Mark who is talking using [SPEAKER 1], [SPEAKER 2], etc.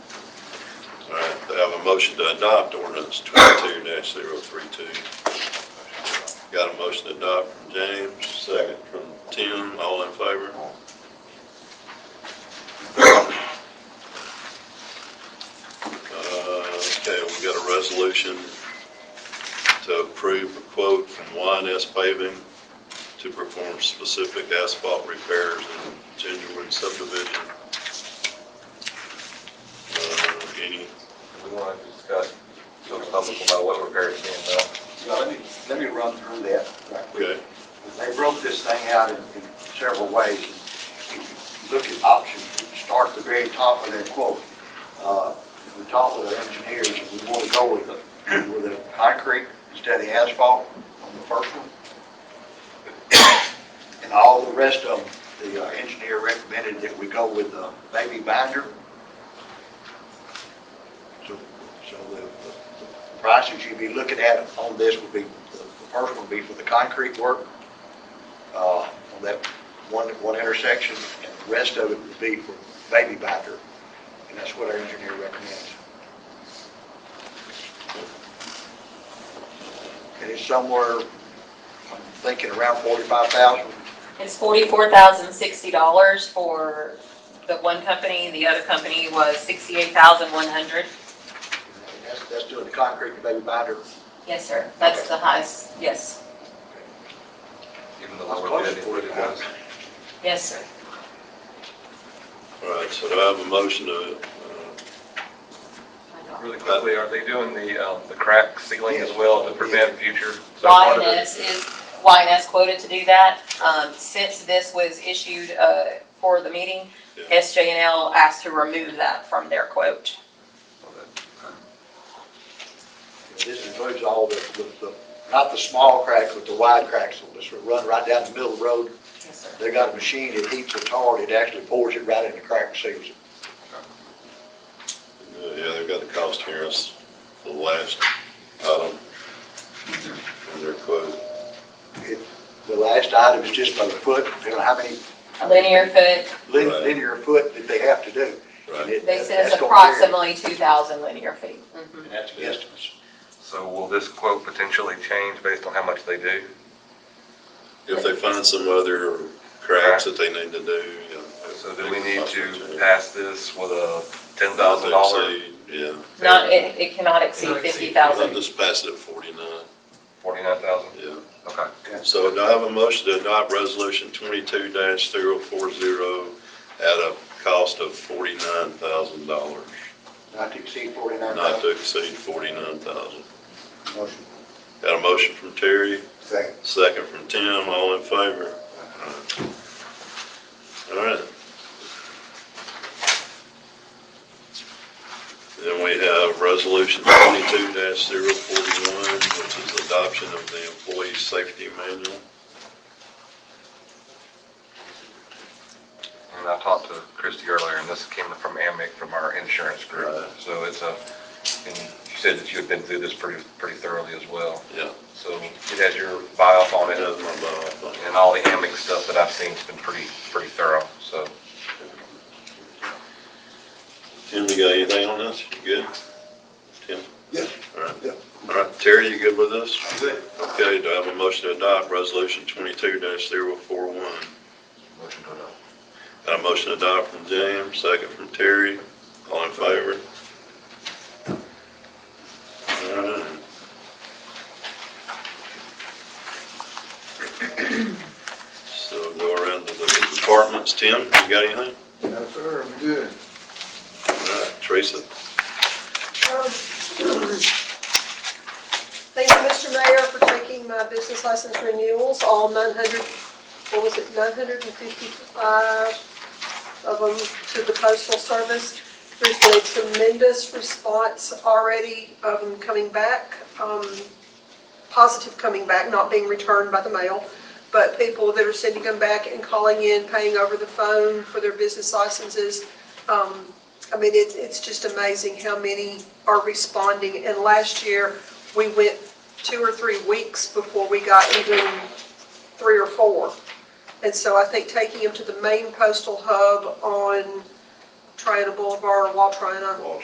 [SPEAKER 1] a motion to adopt ordinance twenty-two 32 Got a motion to adopt from James, second from Tim, all in favor? Uh, Okay, we got a resolution to approve a quote from YNS paving to perform specific asphalt repairs in Gingerwood subdivision. Uh, Any
[SPEAKER 2] We want to discuss, go public about what repairs being done.
[SPEAKER 3] So let me, let me run through that right quick.
[SPEAKER 1] Okay,
[SPEAKER 3] They broke this thing out in in several ways. If you Look at options, start at the very top of their quote. Uh, We talked with our engineers, and we want to go with the, with the concrete instead of asphalt on the first one. And all the rest of them, the uh, engineer recommended that we go with the baby binder. So, so the- the the prices you'd be looking at on this would be, the first one would be for the concrete work, uh, on that one, one intersection, and the rest of it would be for baby binder, and that's what our engineer recommends. And it's somewhere, I'm thinking around forty-five thousand,
[SPEAKER 4] It's forty-four thousand sixty dollars for the one company, the other company was sixty-eight thousand one hundred.
[SPEAKER 3] that's, that's doing the concrete and baby binder.
[SPEAKER 4] Yes, sir, that's the highest, yes,
[SPEAKER 2] Even the
[SPEAKER 3] That's
[SPEAKER 2] lower
[SPEAKER 3] close
[SPEAKER 2] bid,
[SPEAKER 3] to
[SPEAKER 2] it would have
[SPEAKER 3] 45.
[SPEAKER 4] yes, sir.
[SPEAKER 1] all right, so do I have a motion to, uh,
[SPEAKER 4] I know.
[SPEAKER 2] Really quickly, are they doing the, um, the crack sealing as well to prevent future? so part of it-
[SPEAKER 4] YNS is, YNS quoted to do that. Um, since this was issued, uh, for the meeting,
[SPEAKER 1] Yeah.
[SPEAKER 4] SJNL asked to remove that from their quote.
[SPEAKER 3] This includes all the, with the, not the small cracks, but the wide cracks, so this will run right down the middle of the road.
[SPEAKER 4] Yes, sir.
[SPEAKER 3] They got a machine that heats it hard, it actually pours it right in the crack and seals it.
[SPEAKER 1] uh, uh, yeah, they've got the cost here, it's the last item in their quote.
[SPEAKER 3] It- The last item is just by the foot, you know, how many
[SPEAKER 4] A linear foot,
[SPEAKER 3] lin-
[SPEAKER 1] Right.
[SPEAKER 3] linear foot that they have to do. And
[SPEAKER 1] Right,
[SPEAKER 3] it-
[SPEAKER 4] they said it's
[SPEAKER 3] that's gonna vary.
[SPEAKER 4] approximately two thousand linear feet. Mhm.
[SPEAKER 3] And that's the estimates.
[SPEAKER 2] So will this quote potentially change based on how much they do?
[SPEAKER 1] if they find some other cracks that they need to do, you know.
[SPEAKER 2] So do we need to pass this with a ten thousand dollar,
[SPEAKER 1] $1,000? Yeah,
[SPEAKER 4] Not, it, it cannot exceed
[SPEAKER 2] Cannot exceed-
[SPEAKER 4] fifty
[SPEAKER 1] I'll
[SPEAKER 4] thousand.
[SPEAKER 1] just pass it at forty-nine,
[SPEAKER 2] forty-nine thousand?
[SPEAKER 1] yeah.
[SPEAKER 2] Okay.
[SPEAKER 1] So do I have a motion to adopt resolution twenty-two 40 at a cost of forty-nine thousand dollars,
[SPEAKER 3] Not to exceed forty-nine
[SPEAKER 1] not
[SPEAKER 3] thousand.
[SPEAKER 1] to exceed forty-nine thousand.
[SPEAKER 3] Motion.
[SPEAKER 1] Got a motion from Terry?
[SPEAKER 3] Second.
[SPEAKER 1] Second from Tim, all in favor? All right. Then we have Resolution twenty-two 41 which is adoption of the Employee Safety Manual.
[SPEAKER 2] And I talked to Christie earlier, and this came from Amic, from our insurance group.
[SPEAKER 1] Right.
[SPEAKER 2] So it's a, and you said that you had been through this pretty, pretty thoroughly as well.
[SPEAKER 1] Yeah,
[SPEAKER 2] So it has your buy-off on
[SPEAKER 1] I
[SPEAKER 2] it,
[SPEAKER 1] have my bio on it.
[SPEAKER 2] and all the Amic stuff that I've seen has been pretty, pretty thorough, so.
[SPEAKER 1] Tim, you got anything on this? You good? Tim?
[SPEAKER 3] Yeah.
[SPEAKER 1] All right.
[SPEAKER 3] Yeah.
[SPEAKER 1] All right, Terry, you good with this?
[SPEAKER 3] Good.
[SPEAKER 1] Okay, do I have a motion to adopt Resolution twenty-two 41
[SPEAKER 2] Motion to adopt.
[SPEAKER 1] Got a motion to adopt from James, second from Terry, all in favor? Alright. So go around to the departments, Tim, you got anything?
[SPEAKER 3] No, sir, I'm good.
[SPEAKER 1] Alright, Teresa,
[SPEAKER 5] Thank you, Mr. Mayor, for taking my business license renewals, all 900, what was it, 955 of them to the postal service. There's been a tremendous response already of them coming back, um, positive coming back, not being returned by the mail, but people that are sending them back and calling in, paying over the phone for their business licenses. Um, I mean, it's, it's just amazing how many are responding. And last year, we went two or three weeks before we got even three or four. And so I think taking them to the main postal hub on Triana Boulevard, Watrana,
[SPEAKER 1] Walter.